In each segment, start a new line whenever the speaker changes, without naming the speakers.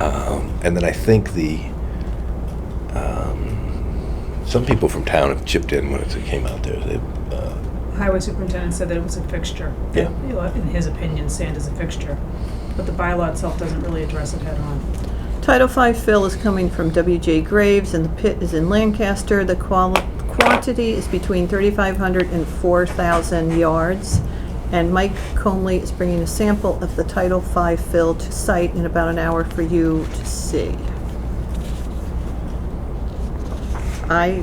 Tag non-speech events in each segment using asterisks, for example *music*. Um, and then I think the, um, some people from town have chipped in when it came out there. They, uh,
Highway superintendent said that it was a fixture.
Yeah.
You know, In his opinion, sand is a fixture, but the bylaw itself doesn't really address it head on.
Title V fill is coming from W.J. Graves, and the pit is in Lancaster. The quali- quantity is between 3,500 and 4,000 yards. And Mike Conley is bringing a sample of the Title V fill to site in about an hour for you to see. I,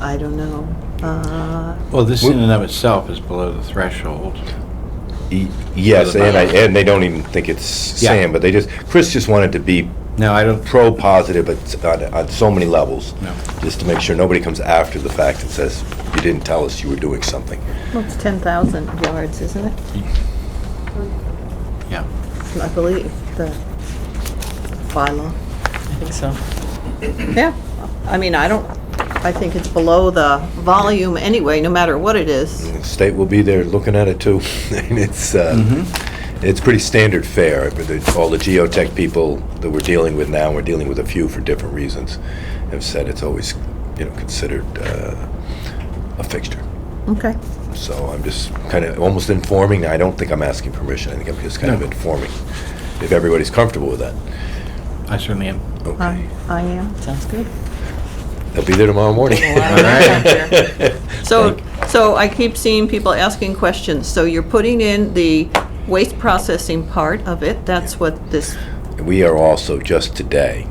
I don't know. Uh,
Well, this in and of itself is below the threshold.
e- yes,
Other
and I,
bylaws.
and they don't even think it's
Yeah.
sand, but they just, Chris just wanted to be
No, I don't,
pro positive but on, on so many levels.
No.
Just to make sure nobody comes after the fact and says, you didn't tell us you were doing something.
Well, it's 10,000 yards, isn't it?
yeah.
I believe, the bylaw.
I think so.
Yeah, I mean, I don't, I think it's below the volume anyway, no matter what it is.
The State will be there looking at it too. *laughs* And it's, uh, it's pretty standard fare. But the- All the geotech people that we're dealing with now, we're dealing with a few for different reasons, have said it's always, you know, considered uh, a fixture.
Okay,
So I'm just kind of almost informing. I don't think I'm asking permission. I think I'm just kind of
No.
informing. If everybody's comfortable with that.
I certainly am.
I,
Okay.
I am.
Sounds good.
They'll be there tomorrow morning.
There's a lot of noise out there.
*laughs*
So, so I keep seeing people asking questions, so you're putting in the waste processing part of it, that's what this,
We are also, just today,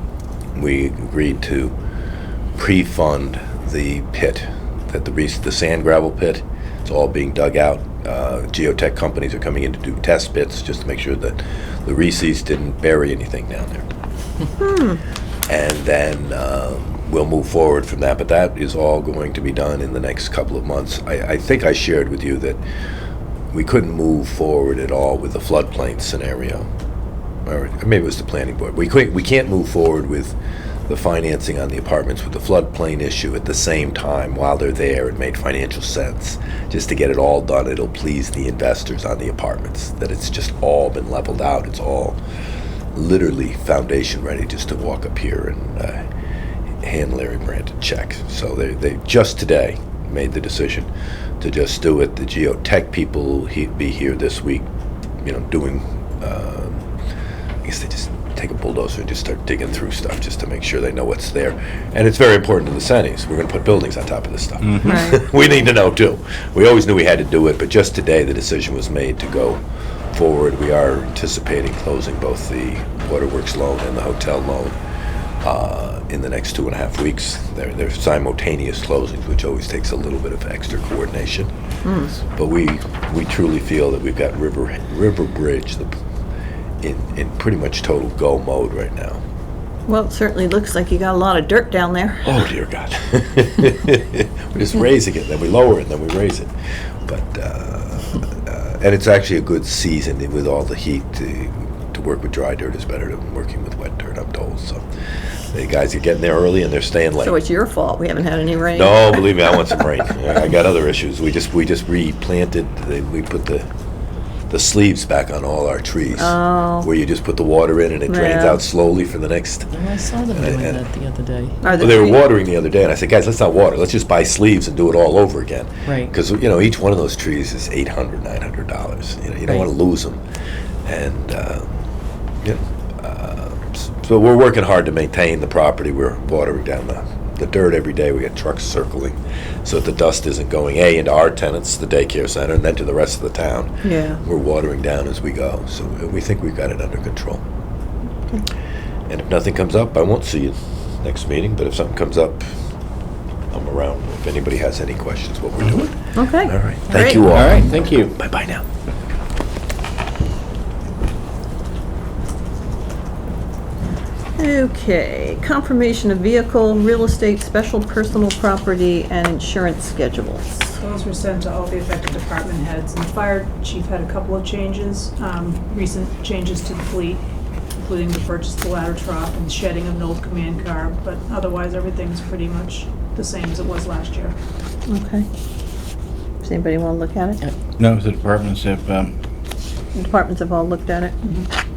we agreed to pre-fund the pit, that the, rec- the sand gravel pit, it's all being dug out. Uh, Geotech companies are coming in to do test pits, just to make sure that the Reese's didn't bury anything down there. And then um, we'll move forward from that, but that is all going to be done in the next couple of months. I, I think I shared with you that we couldn't move forward at all with the floodplain scenario or maybe it was the planning board. We can't, we can't move forward with the financing on the apartments with the floodplain issue at the same time while they're there. It made financial sense. Just to get it all done, it'll please the investors on the apartments, that it's just all been leveled out. It's all literally foundation ready just to walk up here and uh, hand Larry Brandt a check. So they, they just today made the decision to just do it. The geotech people will he, be here this week, you know, doing. um I guess they just take a bulldozer and just start digging through stuff just to make sure they know what's there. And it's very important to the Sennies. We're going to put buildings on top of this stuff. *laughs*
Right.
we need to know too. We always knew we had to do it, but just today the decision was made to go forward. We are anticipating closing both the waterworks loan and the hotel loan uh, in the next two and a half weeks. They're, they're simultaneous closings, which always takes a little bit of extra coordination. But we we truly feel that we've got River River Bridge the, in in pretty much total go mode right now.
*laughs* well, it certainly looks like you got a lot of dirt down there.
*laughs* Oh dear God! We're just raising it, then we lower it, then we raise it. But uh, uh, and it's actually a good season with all the heat. To, to work with dry dirt is better than working with wet dirt, I'm told. So the guys are getting there early and they're staying late.
So it's your fault, we haven't had any rain.
No, believe me, I want
*laughs*
some rain. I I got other issues. We just, we just replanted, the- we put the, the sleeves back on all our trees.
Oh.
Where you just put the water in and it drains
Yeah.
out slowly for the next,
Oh, I saw them doing
and-
that the other day.
Are
well,
the
they were
tree-
watering the other day and I said, guys, let's not water, let's just buy sleeves and do it all over again.
Right.
Because, you know, each one of those trees is eight hundred, nine hundred dollars. You know, you don't
Right.
wanna lose them. And, uh, you know, uh, s- so we're working hard to maintain the property. We're watering down the, the dirt every day. We got trucks circling. So that the dust isn't going, A, into our tenants, the daycare center, and then to the rest of the town.
Yeah,
We're watering down as we go. So we think we've got it under control. And if nothing comes up, I won't see you next meeting, but if something comes up, I'm around. If anybody has any questions, what we're doing.
okay.
All right.
Great.
Thank you all.
All right, thank you.
Bye-bye now.
Okay, confirmation of vehicle, real estate, special personal property, and insurance schedules.
Those were sent to all the affected department heads, and the fire chief had a couple of changes, um, recent changes to the fleet, including the purchase of the ladder truck and shedding of an old command car, but otherwise, everything's pretty much the same as it was last year.
Okay. Does anybody want to look at it?
No, the departments have, um,
The Departments have all looked at it?